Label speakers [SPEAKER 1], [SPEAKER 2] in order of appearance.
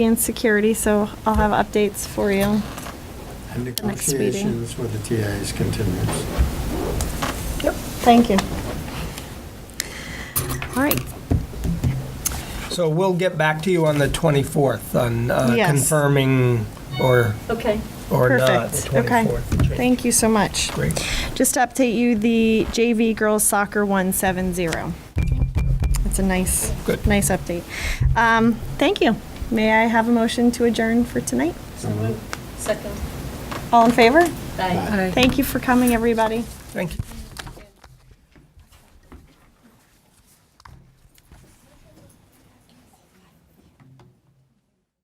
[SPEAKER 1] and security, so I'll have updates for you.
[SPEAKER 2] And
[SPEAKER 1] next meeting.
[SPEAKER 2] negotiations with the TAs continues.
[SPEAKER 1] Yep. Thank you. All right,
[SPEAKER 3] So we'll get back to you on the 24th on uh,
[SPEAKER 1] Yes.
[SPEAKER 3] confirming or,
[SPEAKER 4] Okay.
[SPEAKER 3] or not. the
[SPEAKER 1] perfect, okay.
[SPEAKER 3] 24th.
[SPEAKER 1] Thank you so much.
[SPEAKER 3] Great.
[SPEAKER 1] Just to update you, the JV girls soccer won 7-0. That's a nice,
[SPEAKER 3] Good.
[SPEAKER 1] nice update. Um, Thank you. May I have a motion to adjourn for tonight?
[SPEAKER 4] Second.
[SPEAKER 1] All in favor?
[SPEAKER 4] Aye.
[SPEAKER 1] Thank you for coming, everybody.
[SPEAKER 3] Thank you.